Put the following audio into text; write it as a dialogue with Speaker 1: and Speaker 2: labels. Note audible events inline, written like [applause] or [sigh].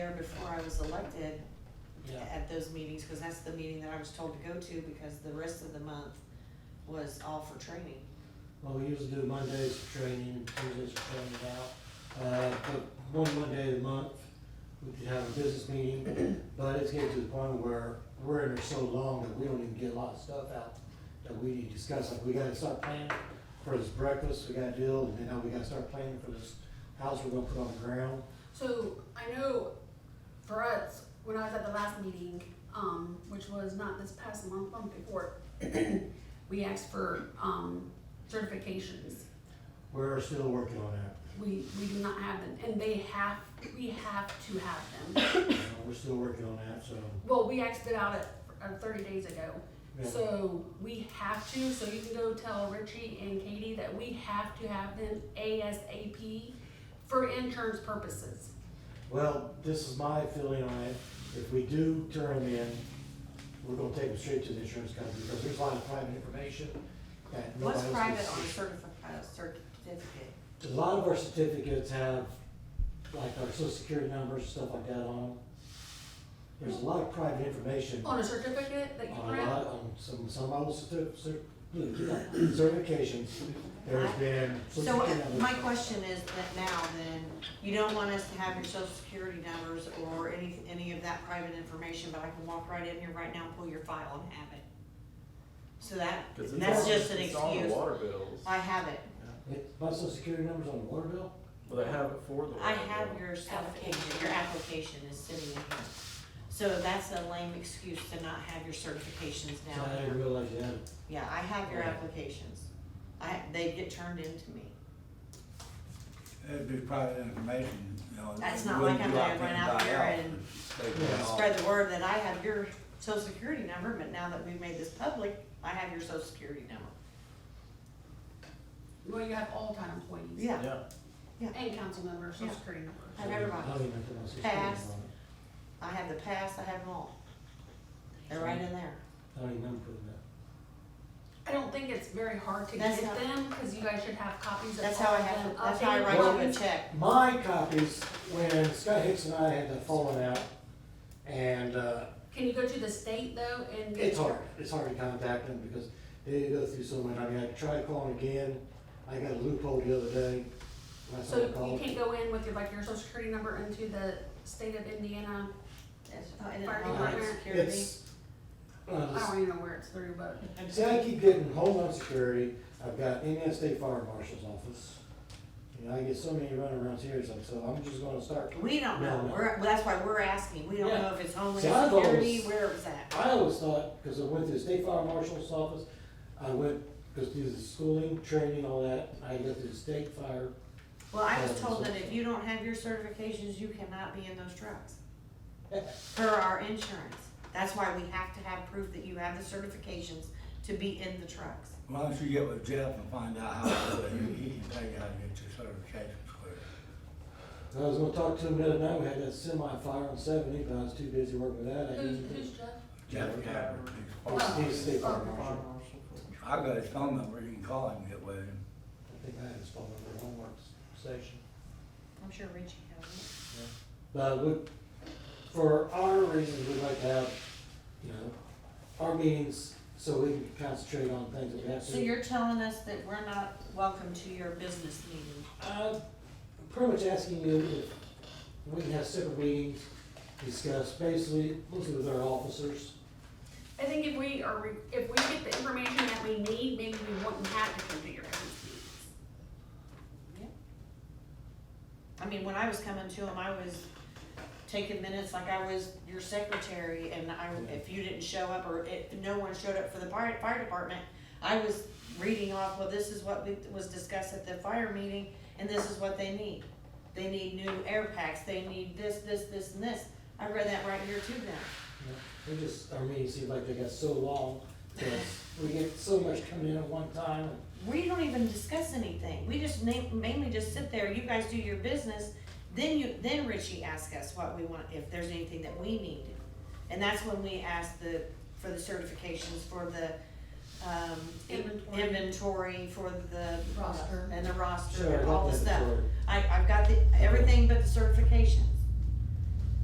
Speaker 1: there before I was elected
Speaker 2: Yeah,
Speaker 1: at those meetings, cause that's the meeting that I was told to go to, because the rest of the month was all for training.
Speaker 2: well, we usually do Mondays for training, Tuesdays for training out. Uh, but one Monday of the month, we could have a business meeting, but it's getting to the point where we're in there so long that we don't even get a lot of stuff out that we need to discuss, like, we gotta start planning for this breakfast, we gotta do, and then now we gotta start planning for this house we're gonna put on the ground.
Speaker 3: So I know for us, when I was at the last meeting, um, which was not this past month, month before, [clears throat] we asked for, um, certifications.
Speaker 2: We're still working on that,
Speaker 3: We, we do not have them, and they have, we have to have them.
Speaker 2: You know, we're still working on that, so.
Speaker 3: Well, we asked it out at, uh, thirty days ago,
Speaker 2: yeah.
Speaker 3: so we have to, so you can go tell Richie and Katie that we have to have them ASAP for insurance purposes.
Speaker 2: Well, this is my feeling on it. If we do turn them in, we're gonna take them straight to the insurance company because there's a lot of private information that nobody
Speaker 1: What's
Speaker 2: else.
Speaker 1: private
Speaker 2: can
Speaker 1: on a
Speaker 2: see.
Speaker 1: certifi- uh, certificate?
Speaker 2: A lot of our certificates have like our social security numbers, stuff like that on them. There's a lot of private information on
Speaker 3: On a certificate that
Speaker 2: a
Speaker 3: you print?
Speaker 2: lot, on some, some old certi- cer- certifications. There's been. social
Speaker 1: So uh,
Speaker 2: security numbers.
Speaker 1: my question is that now then, you don't want us to have your social security numbers or any, any of that private information, but I can walk right in here right now and pull your file and have it. So that,
Speaker 4: Cause it's
Speaker 1: that's
Speaker 4: on-
Speaker 1: just an
Speaker 4: it's on the
Speaker 1: excuse.
Speaker 4: water bills.
Speaker 1: I have it.
Speaker 2: It- My social security number's on the water bill?
Speaker 4: Well, they have it for the water bill.
Speaker 1: I have your certification, your application is sitting in here. So that's a lame excuse to not have your certifications
Speaker 2: So I
Speaker 1: now.
Speaker 2: didn't realize you had it.
Speaker 1: Yeah, I have your
Speaker 2: Yeah.
Speaker 1: applications. I, they get turned into me.
Speaker 5: It'd be private information, you know.
Speaker 1: That's
Speaker 5: you
Speaker 1: not
Speaker 5: wouldn't
Speaker 1: like I'm
Speaker 5: go
Speaker 1: gonna
Speaker 5: out
Speaker 1: run
Speaker 5: there
Speaker 1: out
Speaker 5: buy
Speaker 1: there
Speaker 5: out.
Speaker 1: and
Speaker 4: They
Speaker 2: Yeah.
Speaker 4: can all-
Speaker 1: spread the word that I have your social security number, but now that we've made this public, I have your social security number.
Speaker 3: Well, you have all-time employees.
Speaker 4: Yeah.
Speaker 3: And council members, social
Speaker 1: Yeah.
Speaker 3: security numbers.
Speaker 1: Have everybody.
Speaker 2: I don't even put my social security
Speaker 1: Pass.
Speaker 2: number on it.
Speaker 1: I have the past, I have them all. They're right in there.
Speaker 2: I don't even remember putting that.
Speaker 3: I don't think it's very hard to
Speaker 1: That's
Speaker 3: get
Speaker 1: how-
Speaker 3: them, cause you guys should have copies of all
Speaker 1: That's
Speaker 3: of them.
Speaker 1: how I have, that's how I
Speaker 3: updated
Speaker 1: write you a
Speaker 3: ones.
Speaker 1: check.
Speaker 2: My copies, when Scott Hicks and I had the falling out, and, uh,
Speaker 3: Can you go to the state though and?
Speaker 2: it's hard, it's hard to contact them because they go through so much, I mean, I tried calling again, I got a loophole the other day. when I
Speaker 3: So
Speaker 2: started
Speaker 3: you
Speaker 2: calling.
Speaker 3: can't go in with your, like, your social security number into the state of Indiana,
Speaker 1: That's- I didn't
Speaker 3: Fire
Speaker 1: know about
Speaker 3: department.
Speaker 1: security.
Speaker 2: It's, uh,
Speaker 3: I don't even know where it's through, but,
Speaker 2: see, I keep getting Homeland Security, I've got Indiana State Fire Marshal's Office. You know, I get so many runarounds here, so- so I'm just gonna start
Speaker 1: We don't
Speaker 2: No,
Speaker 1: know,
Speaker 2: no.
Speaker 1: we're, well, that's why we're asking, we don't
Speaker 2: Yeah.
Speaker 1: know if it's
Speaker 2: See, I've
Speaker 1: Homeland Security,
Speaker 2: always-
Speaker 1: where it's at.
Speaker 2: I always thought, because I went to the state fire marshal's office, I went, because through the schooling, training, all that, I went to the state fire.
Speaker 1: Well, I was
Speaker 2: Yeah,
Speaker 1: told
Speaker 2: so-
Speaker 1: that if you don't have your certifications, you cannot be in those trucks. For our insurance, that's why we have to have proof that you have the certifications to be in the trucks.
Speaker 5: Why don't you get with Jeff and find out how, to do it? he, he can tell you how to get your certifications clear.
Speaker 2: And I was gonna talk to him the other night, we had that semi fire on seventy, but I was too busy working with that, I
Speaker 3: who's,
Speaker 2: didn't.
Speaker 3: who's
Speaker 2: think-
Speaker 3: Jeff?
Speaker 5: Jeff Gabbard,
Speaker 2: He's-
Speaker 3: Oh.
Speaker 2: He's state fire
Speaker 3: Oh.
Speaker 2: marshal,
Speaker 5: I got his phone number, you can call him, and get with him.
Speaker 2: I think I had his phone number, homework station.
Speaker 1: I'm sure Richie has it.
Speaker 2: But we, for our reasons, we'd like to have, you know, our meetings, so we can concentrate on things that we have to.
Speaker 1: So you're telling us that we're not welcome to your business meeting?
Speaker 2: Uh, pretty much asking you if we can have separate meetings, discuss basically, mostly with our officers.
Speaker 3: I think if we are, re- if we get the information that we need, maybe we wouldn't have to come to your guys' meetings.
Speaker 1: I mean, when I was coming to them, I was taking minutes like I was your secretary and I,
Speaker 2: Yeah.
Speaker 1: if you didn't show up or if no one showed up for the fire, fire department, I was reading off, well, this is what we, was discussed at the fire meeting and this is what they need. They need new air packs, they need this, this, this and this. I read that right here to them.
Speaker 2: We just, our meetings seem like they got so long, because we get so much coming in at one time.
Speaker 1: we don't even discuss anything. We just ma- mainly just sit there, you guys do your business, then you, then Richie asks us what we want, if there's anything that we need. And that's when we ask the, for the certifications, for the, um,
Speaker 3: Inventory.
Speaker 1: inventory, for the.
Speaker 3: Roster.
Speaker 1: And the roster,
Speaker 2: Sure,
Speaker 1: and all the
Speaker 2: that's
Speaker 1: stuff.
Speaker 2: sort of-
Speaker 1: I, I've got the, everything but the certifications.